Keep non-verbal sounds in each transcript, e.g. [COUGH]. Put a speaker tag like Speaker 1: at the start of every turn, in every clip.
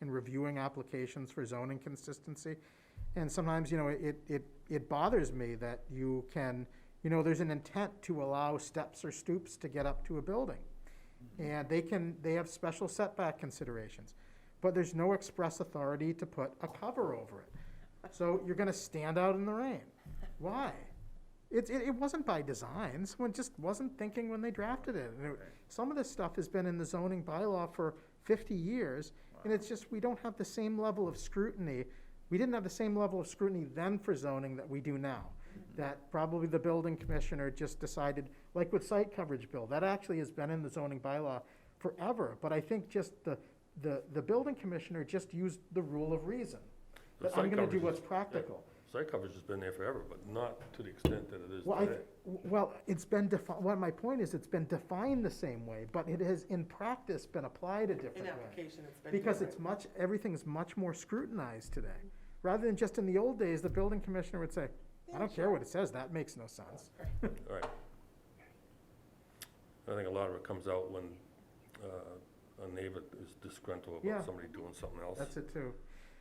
Speaker 1: in reviewing applications for zoning consistency. And sometimes, you know, it, it, it bothers me that you can, you know, there's an intent to allow steps or stoops to get up to a building. And they can, they have special setback considerations, but there's no express authority to put a cover over it. So you're gonna stand out in the rain. Why? It, it, it wasn't by design, someone just wasn't thinking when they drafted it. And it- Some of this stuff has been in the zoning bylaw for fifty years, and it's just, we don't have the same level of scrutiny. We didn't have the same level of scrutiny then for zoning that we do now.
Speaker 2: Mm-hmm.
Speaker 1: That probably the building commissioner just decided, like with site coverage bill, that actually has been in the zoning bylaw forever. But I think just the, the, the building commissioner just used the rule of reason.
Speaker 2: The
Speaker 1: That I'm
Speaker 2: site
Speaker 1: gonna do
Speaker 2: coverage
Speaker 1: what's
Speaker 2: is-
Speaker 1: practical.
Speaker 2: Site coverage has been there forever, but not to the extent that it is
Speaker 1: Well, I,
Speaker 2: today.
Speaker 1: well, it's been defined, well, my point is, it's been defined the same way, but it has in practice been applied a different
Speaker 3: In
Speaker 1: way.
Speaker 3: application, it's been
Speaker 1: Because
Speaker 3: different.
Speaker 1: it's much, everything's much more scrutinized today. Rather than just in the old days, the building commissioner would say, I
Speaker 3: Yeah,
Speaker 1: don't care what it says, that makes no sense.
Speaker 2: All right. I think a lot of it comes out when uh, a neighbor is disgruntled
Speaker 1: Yeah.
Speaker 2: about somebody doing something else.
Speaker 1: That's it too.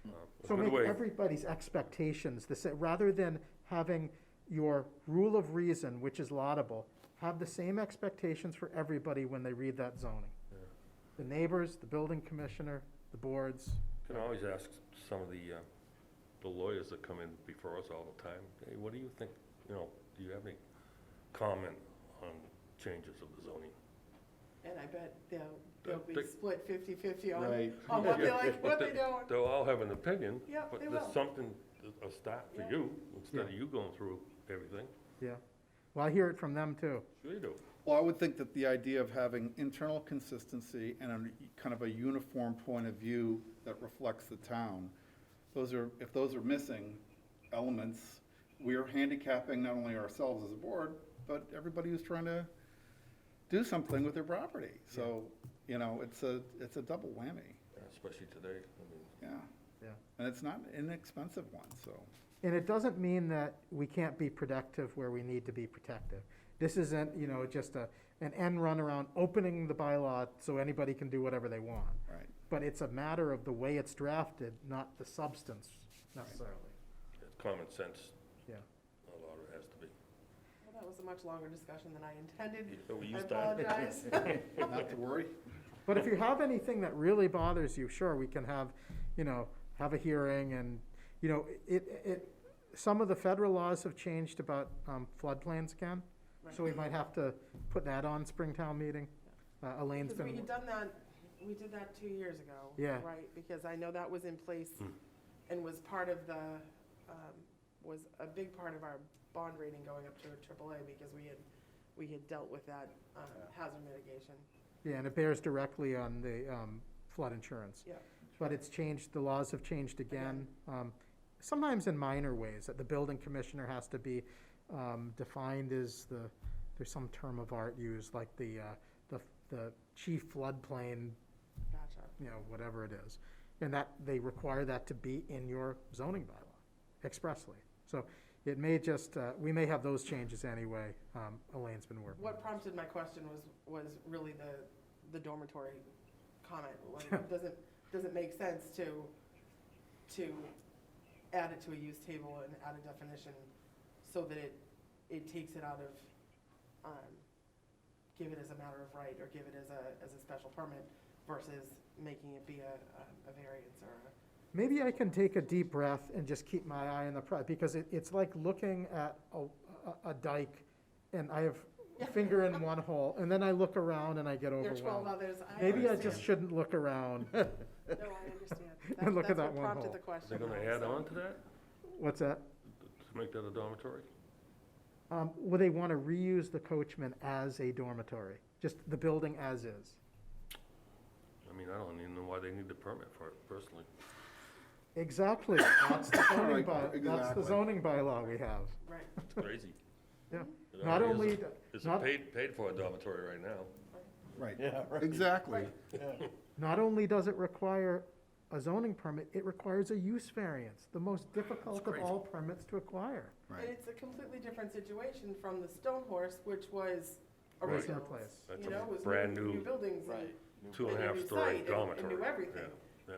Speaker 2: Uh, it's
Speaker 1: So
Speaker 2: a good
Speaker 1: make
Speaker 2: way-
Speaker 1: everybody's expectations the same, rather than having your rule of reason, which is laudable, have the same expectations for everybody when they read that zoning.
Speaker 2: Yeah.
Speaker 1: The neighbors, the building commissioner, the boards.
Speaker 2: Can always ask some of the, uh, the lawyers that come in before us all the time, hey, what do you think, you know, do you have any comment on changes of the zoning?
Speaker 3: And I bet they'll, they'll be
Speaker 2: Dick-
Speaker 3: split 50/50 on,
Speaker 4: Right.
Speaker 3: [LAUGHS] on what they
Speaker 2: Yeah.
Speaker 3: like,
Speaker 2: [LAUGHS]
Speaker 3: what they
Speaker 2: But
Speaker 3: don't.
Speaker 2: They'll all have an opinion.
Speaker 3: Yeah, they
Speaker 2: But
Speaker 3: will.
Speaker 2: there's something, a start for
Speaker 3: Yeah.
Speaker 2: you, instead of
Speaker 1: Yeah.
Speaker 2: you going through everything.
Speaker 1: Yeah. Well, I hear it from them too.
Speaker 2: Sure you do.
Speaker 4: Well, I would think that the idea of having internal consistency and a kind of a uniform point of view that reflects the town, those are, if those are missing elements, we are handicapping not only ourselves as a board, but everybody who's trying to do something with their property. So, you know, it's a, it's a double whammy,
Speaker 2: Especially today, I mean.
Speaker 4: yeah.
Speaker 1: Yeah.
Speaker 4: And it's not an inexpensive one, so.
Speaker 1: And it doesn't mean that we can't be productive where we need to be protective. This isn't, you know, just a, an end run around opening the bylaw so anybody can do whatever they want.
Speaker 4: Right.
Speaker 1: But it's a matter of the way it's drafted, not the substance necessarily.
Speaker 2: It's common sense,
Speaker 1: Yeah.
Speaker 2: a lot of it has to be.
Speaker 3: Well, That was a much longer discussion than I intended.
Speaker 2: So we
Speaker 3: I
Speaker 2: used that.
Speaker 3: apologize.
Speaker 2: [LAUGHS]
Speaker 4: Not to worry.
Speaker 1: But if you have anything that really bothers you, sure, we can have, you know, have a hearing and, you know, it, it, some of the federal laws have changed about um, floodplains again. [LAUGHS] So we might have to put that on Springtown meeting. Uh, Elaine's
Speaker 3: Because we
Speaker 1: been,
Speaker 3: had done that, we did that two years ago.
Speaker 1: Yeah.
Speaker 3: Right, because I know that was in place
Speaker 2: Hmm.
Speaker 3: and was part of the, um, was a big part of our bond rating going up to AAA because we had, we had dealt with that um, hazard mitigation.
Speaker 1: yeah, and it bears directly on the um, flood insurance.
Speaker 3: Yeah.
Speaker 1: But it's changed, the laws have changed again, um, sometimes in minor ways, that the building commissioner has to be um, defined as the, there's some term of art used, like the, uh, the the chief floodplain
Speaker 3: Gotcha.
Speaker 1: you know, whatever it is. And that, they require that to be in your zoning bylaw expressly. So it may just, uh, we may have those changes anyway. Um, Elaine's been working.
Speaker 3: What prompted my question was, was really the, the dormitory comment. Like,
Speaker 1: [LAUGHS]
Speaker 3: it doesn't, doesn't make sense to, to add it to a use table and add a definition so that it, it takes it out of, um, give it as a matter of right or give it as a, as a special permit versus making it be a, um, a variance or a.
Speaker 1: Maybe I can take a deep breath and just keep my eye on the prize, because it, it's like looking at a, a- a dike and I have a finger
Speaker 3: [LAUGHS]
Speaker 1: in one hole, and then I look around and I get
Speaker 3: There are twelve
Speaker 1: overwhelmed.
Speaker 3: others.
Speaker 1: Maybe I
Speaker 3: understand.
Speaker 1: just shouldn't look
Speaker 3: [LAUGHS]
Speaker 1: around.
Speaker 3: No, I understand.
Speaker 1: [LAUGHS] And look at
Speaker 3: That's
Speaker 1: that
Speaker 3: what
Speaker 1: one hole.
Speaker 3: prompted the
Speaker 2: Is
Speaker 3: question.
Speaker 2: they gonna add on to that,
Speaker 1: What's that?
Speaker 2: to make that a dormitory?
Speaker 1: Um, Would they want to reuse the coachman as a dormitory? Just the building as is?
Speaker 2: I mean, I don't even know why they need the permit for it personally.
Speaker 4: [COUGHS]
Speaker 1: Exactly, that's the zoning
Speaker 4: Right,
Speaker 1: by, that's the
Speaker 4: exactly.
Speaker 1: zoning bylaw we have,
Speaker 3: Right.
Speaker 2: It's
Speaker 3: [LAUGHS]
Speaker 2: crazy.
Speaker 1: yeah.
Speaker 2: It
Speaker 1: Not
Speaker 2: already
Speaker 1: only,
Speaker 2: is a-
Speaker 1: th-
Speaker 2: It's a
Speaker 1: not,
Speaker 2: paid, paid for dormitory right now.
Speaker 4: Right.
Speaker 5: Yeah, right.
Speaker 4: Exactly.
Speaker 1: not only does it require a zoning permit, it requires a use variance, the most difficult of
Speaker 2: crazy.
Speaker 1: all permits to acquire.
Speaker 3: And
Speaker 4: Right.
Speaker 3: it's a completely different situation from the Stone Horse, which was
Speaker 2: Right.
Speaker 1: Original
Speaker 3: original.
Speaker 1: place.
Speaker 2: That's
Speaker 3: You
Speaker 2: a
Speaker 3: know, it was
Speaker 2: brand
Speaker 3: new,
Speaker 2: new-
Speaker 3: new buildings and.
Speaker 2: Two and a
Speaker 3: and
Speaker 2: half
Speaker 3: new
Speaker 2: story
Speaker 3: site and-
Speaker 2: dormitory.
Speaker 3: And new everything.
Speaker 2: yeah.